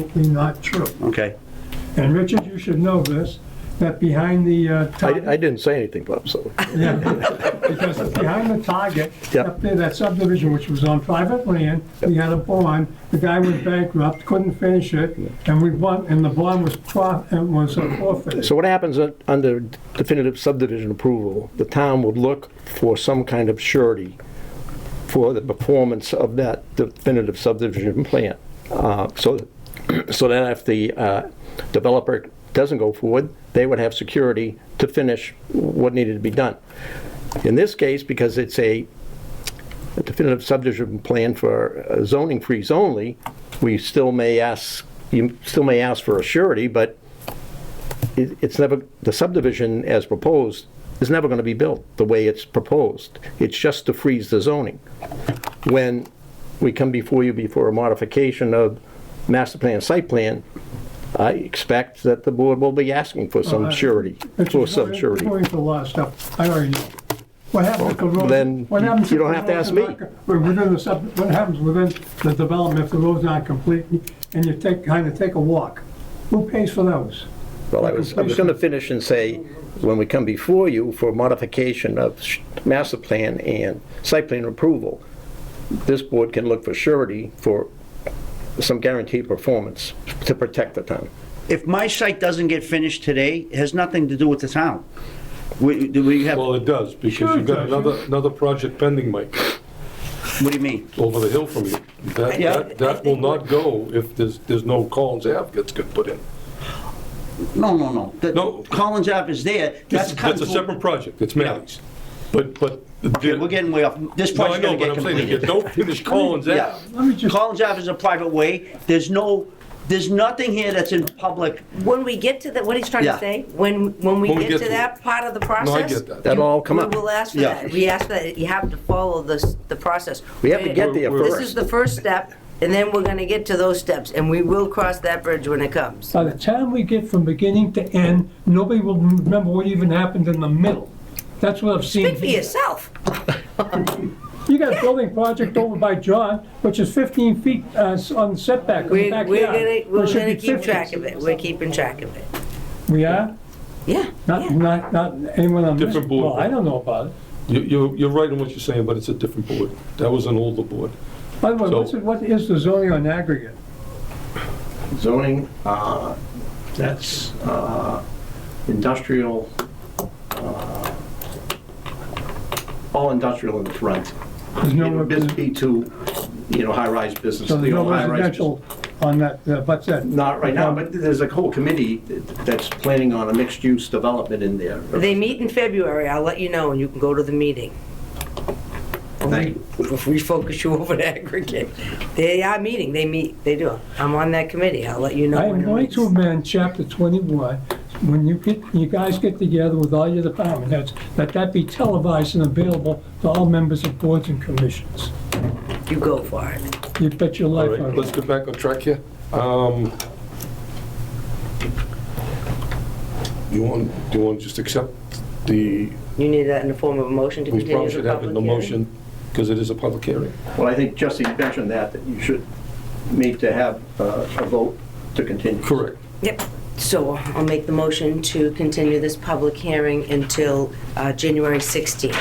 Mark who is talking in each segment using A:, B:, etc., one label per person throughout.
A: absolutely not true.
B: Okay.
A: And Richard, you should know this, that behind the uh,
B: I,
A: target...
B: I didn't say anything, Bob, so.
A: Yeah, because behind the target,
B: Yeah.
A: up there, that subdivision, which was on private land, we had a bond, the guy went bankrupt, couldn't finish it, and we won, and the bond was prof, and was uh, forfeited.
B: So what happens un- under definitive subdivision approval? The town would look for some kind of surety for the performance of that definitive subdivision plan. Uh, So, so then if the uh, developer doesn't go forward, they would have security to finish what needed to be done. In this case, because it's a definitive subdivision plan for uh, zoning freeze only, we still may ask, you still may ask for a surety, but it- it's never, the subdivision as proposed is never going to be built the way it's proposed. It's just to freeze the zoning. When we come before you before a modification of master plan, site plan, I expect that the board will be asking for some
A: Alright.
B: surety,
A: Richard,
B: for some
A: going-
B: surety.
A: Going for a lot of stuff, I already know. What happens if the road...
B: then
A: what
B: you-
A: happens
B: you
A: if
B: don't
A: the
B: have to
A: roads
B: ask
A: are
B: me.
A: not co- when Within the sub, what happens within the development if the road's not complete, and you take, kind of take a walk? Who pays for those?
B: Well, I was, I was going to finish and say, when we come before you for modification of sh- master plan and site plan approval, this board can look for surety for some guaranteed performance to protect the town.
C: If my site doesn't get finished today, it has nothing to do with the town. We, do we have,
D: Well,
C: what
D: it does, because you've got another, another project pending, Mike,
C: do you mean?
D: over the hill from you. That,
C: Yeah.
D: that, that will not go if there's, there's no Collins Ave gets good put in.
C: No, no, no. The-
D: No.
C: Collins Ave is there.
D: That's,
C: That's cut
D: that's a
C: through-
D: separate project, it's Manny's. But, but.
C: Okay, we're getting way off. This
D: No, I
C: project's gonna
D: know, but
C: get
D: I'm saying, if you
C: completed.
D: don't finish Collins
C: Yeah.
D: Ave,
A: Let me just-
C: Collins Ave is a private way. There's no, there's nothing here that's in public.
E: When we get to the, what he's trying
C: Yeah.
E: to say, when, when we
D: When we
E: get
D: get
E: to
D: to
E: that part of the process.
D: no, I get that.
B: That'll all come up.
E: We will ask for
C: Yeah.
E: that. We ask for that. You have to follow this, the process.
B: We have to get there
E: This
B: first.
E: is the first step, and then we're gonna get to those steps, and we will cross that bridge when it comes.
A: By the time we get from beginning to end, nobody will remember what even happened in the middle. That's what I've seen.
E: Speak for yourself.
A: You got a building project over by John, which is 15 feet uh, s- on setback in the
E: We're, we're
A: backyard.
E: gonna,
A: It
E: we're
A: should
E: gonna
A: be
E: keep
A: 50.
E: track of it. We're keeping track of it.
A: We are?
E: Yeah,
A: Not,
E: yeah.
A: not, not anyone on this...
D: Different board.
A: Well, I don't know about it.
D: you, you're, you're right in what you're saying, but it's a different board. That was an older board.
A: By the way,
D: So-
A: what's it- what is the zoning on aggregate?
F: zoning, uh, that's uh, industrial, uh, all industrial in the front.
A: There's
F: You
A: no
F: know, Biz
A: re-
F: B2, you know, hy-rise business.
A: So
F: the
A: there's no
F: old high-rise business.
A: residential on that, uh, but that...
F: Not right now, but there's a whole committee that's planning on a mixed-use development in there.
E: They meet in February. I'll let you know, and you can go to the meeting.
F: Thank you.
E: If we focus you over to aggregate. They are meeting. They meet, they do. I'm on that committee. I'll let you know.
A: I
E: when
A: am
E: it
A: going
E: meets.
A: to amend chapter 21, when you get, you guys get together with all your department heads, that that be televised and available to all members of boards and commissions.
E: You go for it.
A: You bet your
D: All
A: life
D: right,
A: on
D: let's
A: it.
D: get back on track here. Um, You want, do you want to just accept the,
E: You need that in the form of a motion to
D: we
E: continue
D: probably
E: the
D: should have it in
E: public
D: the
E: hearing?
D: motion, because it is a public hearing.
F: Well, I think Jesse mentioned that, that you should need to have uh, a vote to continue.
D: Correct.
E: Yep. So I'll make the motion to continue this public hearing until uh, January 16th.
D: Do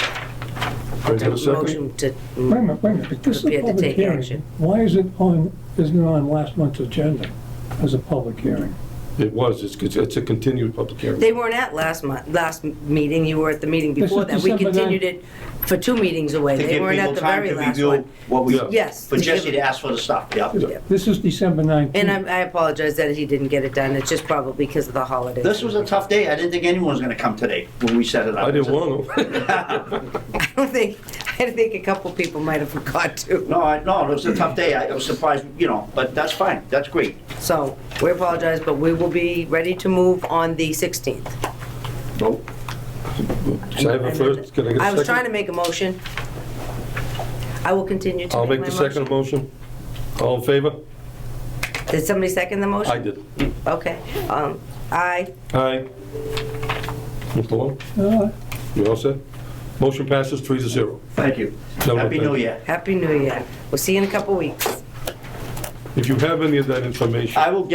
D: I have a second?
E: Motion to,
A: Wait a minute, wait a minute, but this is a
E: We have to
A: public
E: take
A: hearing.
E: action.
A: Why is it on, isn't it on last month's agenda as a public hearing?
D: It was, it's, it's a continued public hearing.
E: they weren't at last month, last meeting, you were at the meeting
A: This
E: before
A: is
E: that. We
A: December ninth.
E: continued it for two meetings away.
C: To
E: They
C: give
E: weren't
C: people
E: at the
C: time
E: very
C: to
E: last
C: review
E: one.
C: what we,
D: Yeah.
E: Yes.
C: for Jesse to ask for the stuff, yeah.
A: This is December 19th.
E: And I I apologize that he didn't get it done. It's just probably because of the holidays.
C: This was a tough day. I didn't think anyone was gonna come today when we set it up.
D: I didn't want to.
E: I don't think, I think a couple people might have forgot to.
C: No, I, no, it was a tough day. I I was surprised, you know, but that's fine. That's great.
E: So we apologize, but we will be ready to move on the 16th.
F: Vote.
D: Should I have a first, can I get a second?
E: I was trying to make a motion. I will continue to
D: I'll
E: make
D: make
E: my
D: the
E: motion.
D: second motion. All in favor?
E: Did somebody second the motion?
D: I did.
E: Okay. Um, I,
D: Aye. Mr. Long,
A: Uh,
D: you all set? Motion passes three to zero.
F: Thank you.
D: No, no,
C: Happy
D: thank
C: New
D: you.
C: Year.
E: Happy New Year. We'll see you in a couple weeks.
G: If you have any of that information.
D: I will get